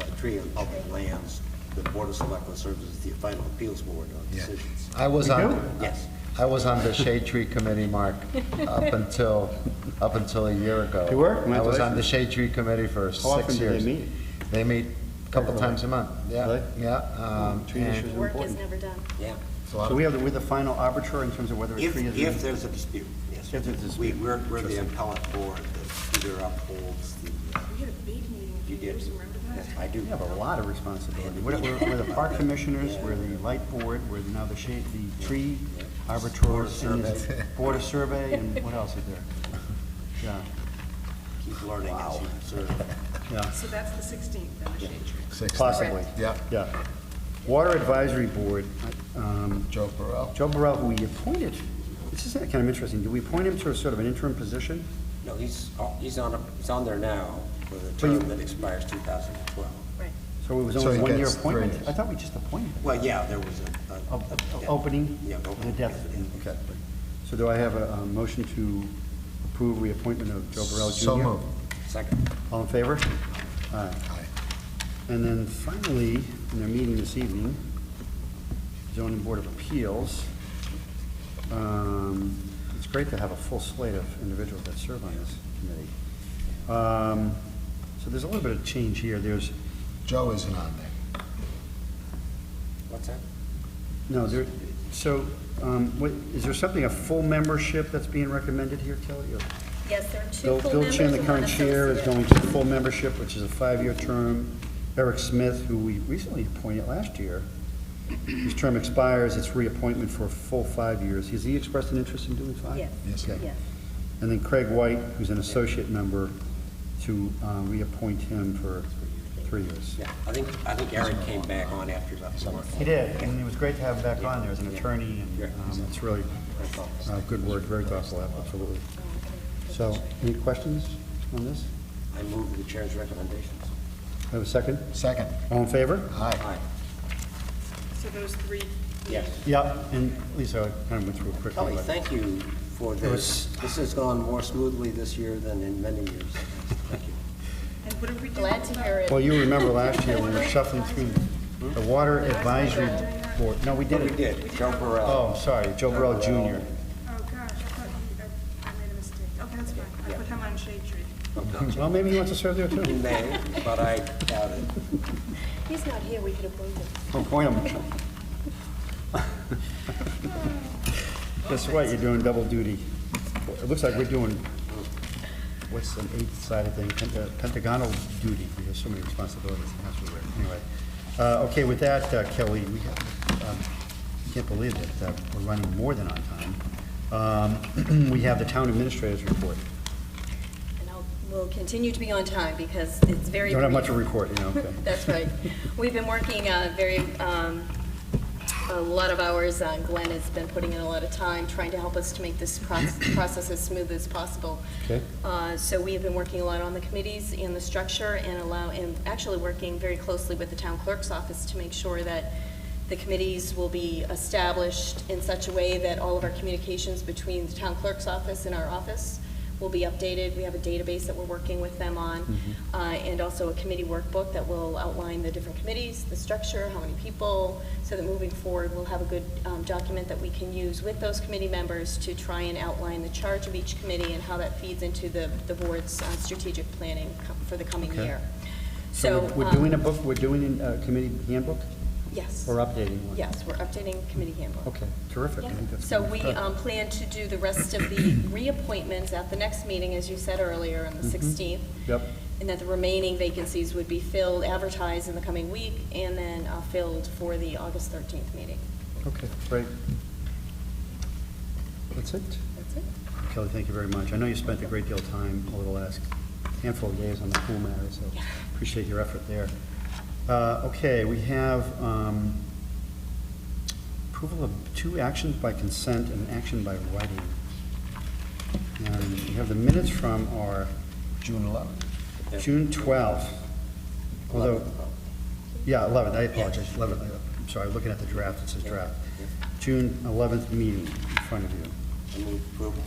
uh, tree on public lands, the Board of Selectmen serves as the final appeals board on Yeah. decisions. I was on, Yes. I was on the shade tree committee, Mark, up until, up until a year ago. You were? I was on the Congratulations. shade tree committee for How often six do they years. meet? They meet a couple times a month, Really? yeah, yeah. um, Tree and issues are Work is important. never done. Yeah. it's a lot So of- we have, the- we're the final arbiter in terms of whether a If, tree is. if there's a dispute, yes. If there's a dispute. We- We're, we're the appellate board that either upholds the, uh, We had a big meeting a few you did. years, remember that? I do. We have a lot of responsibility. We're, we're- we're the park commissioners, we're the light board, we're now the shade, the tree arbiter, and the board of survey, and what else is there? Yeah, Keep learning as you serve. yeah. So that's the sixteenth, then the shade tree. six- Possibly. Yeah, Yeah. Water Advisory Board, um, Joe Burrow. Joe Burrell, who we appointed, this is kind of interesting, do we appoint him to a sort of an interim position? No, he's, oh, he's on, a- he's on there now for the But you- term that expires 2012. So it was So only he a one-year gets three appointment? years. I thought we just appointed him. Well, yeah, there was a- a. a- A- a- yeah. Opening? Yeah, and opening. a depth. Okay. So do I have a a motion to approve reappointment of Joe Burrell Jr.? So moved. Second. All in favor? Aye. And then finally, in their meeting this evening, zoning board of appeals. Um, It's great to have a full slate of individuals that serve on this committee. Um, So there's a little bit of change here. There's, Joe isn't on there. What's that? no, there, so, um, what, is there something, a full membership that's being recommended here, Kelly? or- Yes, there are two Bill full Bill members Chin, the and one current chair, is associate. going to full membership, which is a five-year term. Eric Smith, who we recently appointed last year, his term expires, it's reappointment for a full five years. Has he expressed an interest in doing five? Yes, Yes. Okay. yes. And then Craig White, who's an associate member, to uh, reappoint him for three years. Yeah, I think, I think Eric came back on after he left the work. He did, and it was great to have him back on there as an attorney, Yeah. and um, it's really uh, good work, very thoughtful, absolutely. So, any questions on this? I move the chair's recommendations. Have a second? Second, All in favor? aye. Aye. So those three. Yes. Yeah, and Lisa, I kind of went through it quickly. Kelly, but- thank you for this. This has gone more smoothly this year than in many years. Thank you. And what did we do? Glad to hear it. Well, you remember last year, we were shuffling through the Water Advisory Board. No, we But we didn't. did, Joe Burrell. Oh, I'm sorry, Joe Burrell Jr. Oh, gosh, I thought you, I- I made a mistake. Okay, that's fine. I put him on shade tree. Well, maybe he wants to serve there He too. may, but I doubt it. He's not here, we could appoint him. Don't point him. Guess what, you're doing double duty. It looks like we're doing, what's an eight-sided thing, Pent- uh, pentagonal duty. We have so many responsibilities, that's what we're, anyway. Uh, Okay, with that, uh, Kelly, we have, um, can't believe that uh, we're running more than on time. Um, We have the town administrator's report. And I'll, we'll continue to be on time because it's very. Don't have much to brief. report, you know, okay. That's right. We've been working uh, very, um, a lot of hours. Uh, Glenn has been putting in a lot of time trying to help us to make this proc- process as smooth as possible. Okay. Uh, So we have been working a lot on the committees and the structure and allow, and actually working very closely with the town clerk's office to make sure that the committees will be established in such a way that all of our communications between the town clerk's office and our office will be updated. We have a database that we're working with them on, uh, and also a committee workbook that will outline the different committees, the structure, how many people, so that moving forward, we'll have a good um, document that we can use with those committee members to try and outline the charge of each committee and how that feeds into the, the board's uh, strategic planning co- for the coming Okay. year. So So, we're- we're um, doing a book, we're doing a committee handbook Yes, or updating one? yes, we're updating committee handbook. Okay, terrific. I think Yeah. that's So good. we Good. um, plan to do the rest of the reappointments at the next meeting, as you said earlier, Mm-hmm. on the 16th. Yep. And that the remaining vacancies would be filled, advertised in the coming week, and then uh, filled for the August 13th meeting. Okay, great. That's it? That's it. Kelly, thank you very much. I know you spent a great deal of time over the last handful of days on the pool matter, so Yeah. appreciate your effort there. Uh, Okay, we have um, approval of two actions by consent and an action by writing. And we have the minutes from our June 11th. Yeah. June 12th, although, yeah, 11th, I apologize, 11th, I'm sorry, looking at the draft, it says draft. June 11th meeting in front of you. I move approval.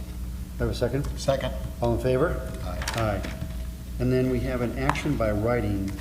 Have a second? Second, All in favor? aye. Aye. And then we have an action by writing